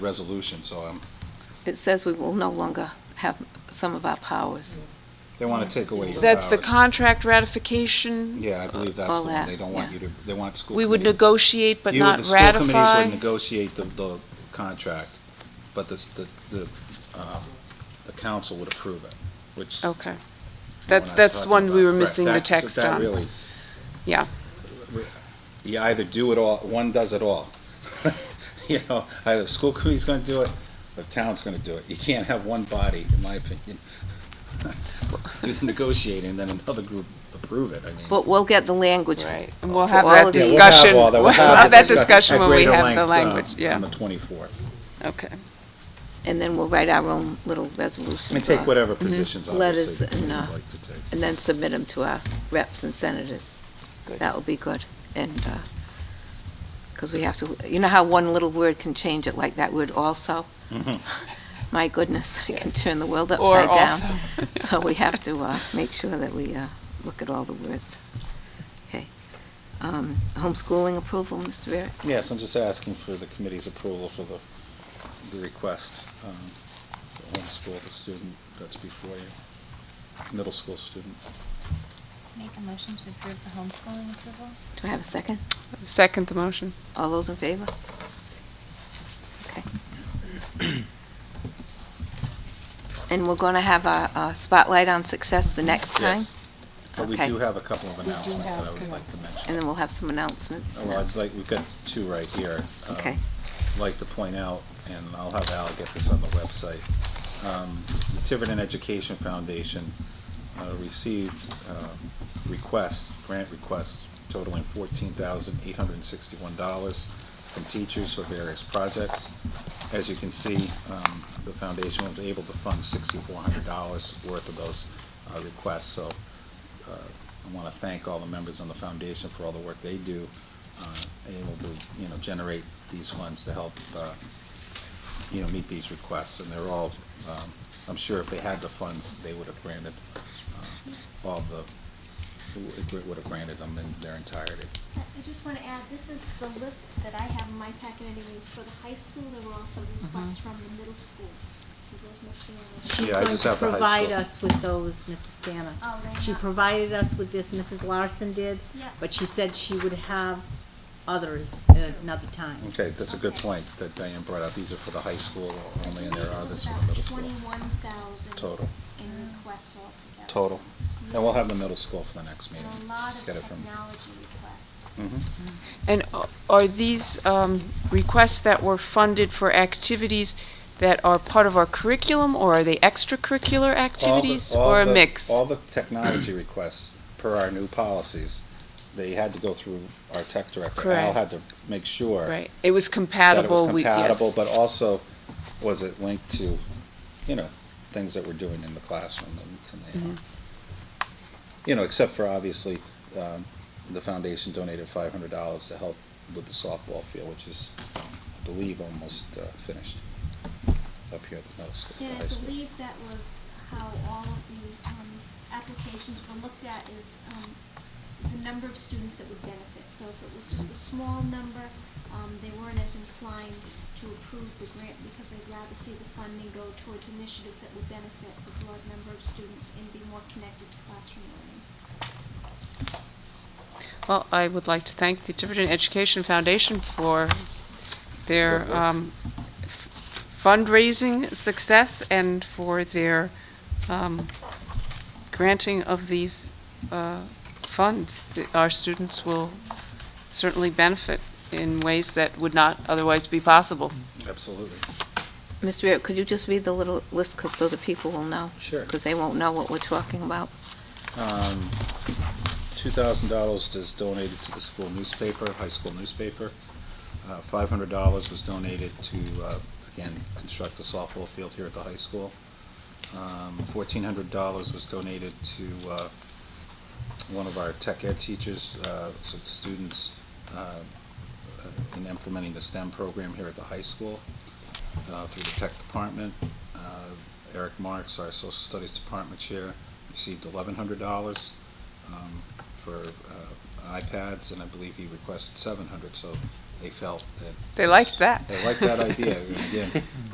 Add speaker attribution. Speaker 1: resolution, so um,
Speaker 2: It says we will no longer have some of our powers.
Speaker 1: they want to take away your
Speaker 3: That's the
Speaker 1: powers.
Speaker 3: contract ratification.
Speaker 1: Yeah, I believe that's
Speaker 2: all
Speaker 1: the one.
Speaker 2: that,
Speaker 1: They don't want
Speaker 2: yeah.
Speaker 1: you to, they want school
Speaker 3: We would
Speaker 1: committee-
Speaker 3: negotiate but
Speaker 1: you would-
Speaker 3: not
Speaker 1: The school committees
Speaker 3: ratify.
Speaker 1: would negotiate the, the contract, but this- the, the, um, the council would approve it, which.
Speaker 3: Okay,
Speaker 1: we're
Speaker 3: that's,
Speaker 1: not
Speaker 3: that's the
Speaker 1: talking
Speaker 3: one we
Speaker 1: about.
Speaker 3: were
Speaker 1: Right,
Speaker 3: missing the
Speaker 1: that-
Speaker 3: text
Speaker 1: that
Speaker 3: on.
Speaker 1: really-
Speaker 3: Yeah.
Speaker 1: You either do it all, one does it all. You know, either the school committee's going to do it, or the town's going to do it. You can't have one body, in my opinion, do the negotiating, then another group approve it, I mean.
Speaker 2: But we'll get the language.
Speaker 3: Right, and we'll
Speaker 2: For
Speaker 3: have
Speaker 2: all
Speaker 3: that
Speaker 2: of
Speaker 1: Yeah,
Speaker 2: these-
Speaker 1: we'll have
Speaker 3: discussion,
Speaker 1: all that.
Speaker 3: we'll have
Speaker 1: the
Speaker 3: that
Speaker 1: discuss-
Speaker 3: discussion
Speaker 1: at
Speaker 3: when we
Speaker 1: greater
Speaker 3: have the
Speaker 1: length, um,
Speaker 3: language,
Speaker 1: On
Speaker 3: yeah,
Speaker 1: the 24th.
Speaker 3: okay.
Speaker 2: And then we'll write our own little resolutions.
Speaker 1: I mean, take
Speaker 2: on-
Speaker 1: whatever positions,
Speaker 2: Letters
Speaker 1: obviously,
Speaker 2: and,
Speaker 1: you'd
Speaker 2: uh,
Speaker 1: like to take.
Speaker 2: And then submit them to our reps and senators.
Speaker 3: Good.
Speaker 2: That will be good. And, because we have to, you know how one little word can change it, like that word also? My goodness, it can turn the world
Speaker 3: Mm-hmm. Or
Speaker 2: upside down.
Speaker 3: also-
Speaker 2: So we have to uh, make sure that we uh, look at all the words. Okay. Um, Homeschooling approval, Mr. Barrett?
Speaker 1: Yes, I'm just asking for the committee's approval for the, the request, um, to homeschool the student that's before you, middle school student.
Speaker 4: Make a motion to approve the homeschooling approval?
Speaker 2: Do I have a second?
Speaker 3: Second the motion.
Speaker 2: All those in favor? Okay. And we're going to have a a spotlight on success the next time?
Speaker 1: Yes. But we
Speaker 2: Okay.
Speaker 1: do have a couple of
Speaker 3: do
Speaker 1: announcements that I
Speaker 3: have-
Speaker 1: would
Speaker 3: come
Speaker 1: like to mention.
Speaker 2: And then we'll have some announcements.
Speaker 1: Well, Oh, I'd like, we've got two right here. Um,
Speaker 2: Okay.
Speaker 1: like to point out, and I'll have Al get this on the website, um, the Tiverton Education Foundation uh, received um, requests, grant requests totaling fourteen thousand eight hundred and sixty-one dollars from teachers for various projects. As you can see, um, the foundation was able to fund sixty-four hundred dollars worth of those uh, requests, so uh, I want to thank all the members on the foundation for all the work they do, uh, able to, you know, generate these funds to help, uh, you know, meet these requests, and they're all, um, I'm sure if they had the funds, they would have granted uh, all the, would- would have granted them in their entirety.
Speaker 5: I I just want to add, this is the list that I have in my packet anyways, for the high school, there were also requests from the middle school. So those must be on the
Speaker 1: Yeah, I just have the high
Speaker 6: She's going to provide
Speaker 1: school.
Speaker 6: us with those, Mrs. Stana.
Speaker 5: Oh, they
Speaker 6: She
Speaker 5: have-
Speaker 6: provided us with this, Mrs. Larson did.
Speaker 5: Yeah.
Speaker 6: But she said she would have others at another time.
Speaker 1: Okay, that's a good
Speaker 5: Okay.
Speaker 1: point that Diane brought up. These are for the high school only, and there are others for the middle
Speaker 5: About
Speaker 1: school.
Speaker 5: twenty-one thousand
Speaker 1: Total.
Speaker 5: in requests altogether.
Speaker 1: Total. And we'll have the middle school for the next
Speaker 5: And
Speaker 1: meeting.
Speaker 5: a lot of
Speaker 1: Get it from-
Speaker 5: technology requests.
Speaker 1: Mhm.
Speaker 3: And a- are these um, requests that were funded for activities that are part of our curriculum, or are they extracurricular
Speaker 1: all the-
Speaker 3: activities,
Speaker 1: all
Speaker 3: or a
Speaker 1: the-
Speaker 3: mix?
Speaker 1: All the technology requests, per our new policies, they had to go through our tech director. Al
Speaker 3: Correct.
Speaker 1: had to make sure.
Speaker 3: Right, it was
Speaker 1: that it
Speaker 3: compatible,
Speaker 1: was
Speaker 3: we,
Speaker 1: compatible,
Speaker 3: yes.
Speaker 1: but also, was it linked to, you know, things that we're doing in the classroom and, and,
Speaker 3: Mm-hmm.
Speaker 1: they are. you know, except for obviously, um, the foundation donated five hundred dollars to help with the softball field, which is, I believe, almost, uh, finished up here at the middle school,
Speaker 5: And
Speaker 1: the
Speaker 5: I
Speaker 1: high school.
Speaker 5: believe that was how all of the um, applications were looked at is um, the number of students that would benefit. So if it was just a small number, um, they weren't as inclined to approve the grant because they'd rather see the funding go towards initiatives that would benefit the broad number of students and be more connected to classroom learning.
Speaker 3: Well, I would like to thank the Tiverton Education Foundation for their um, f- fundraising success and for their um, granting of these uh, funds. The- Our students will certainly benefit in ways that would not otherwise be possible.
Speaker 1: Absolutely.
Speaker 2: Mr. Barrett, could you just read the little list 'cause- so the people will know?
Speaker 1: Sure.
Speaker 2: Because they won't know what we're talking about.
Speaker 1: Um, two thousand dollars is donated to the school newspaper, high school newspaper. Uh, five hundred dollars was donated to, uh, again, construct the softball field here at the high school. Um, fourteen hundred dollars was donated to, uh, one of our tech ed teachers, uh, some students, uh, in implementing the STEM program here at the high school, uh, through the tech department. Uh, Eric Marks, our social studies department chair, received eleven hundred dollars um, for uh, iPads, and I believe he requested seven hundred, so they felt that.
Speaker 3: They liked that.
Speaker 1: They liked that idea. And Again,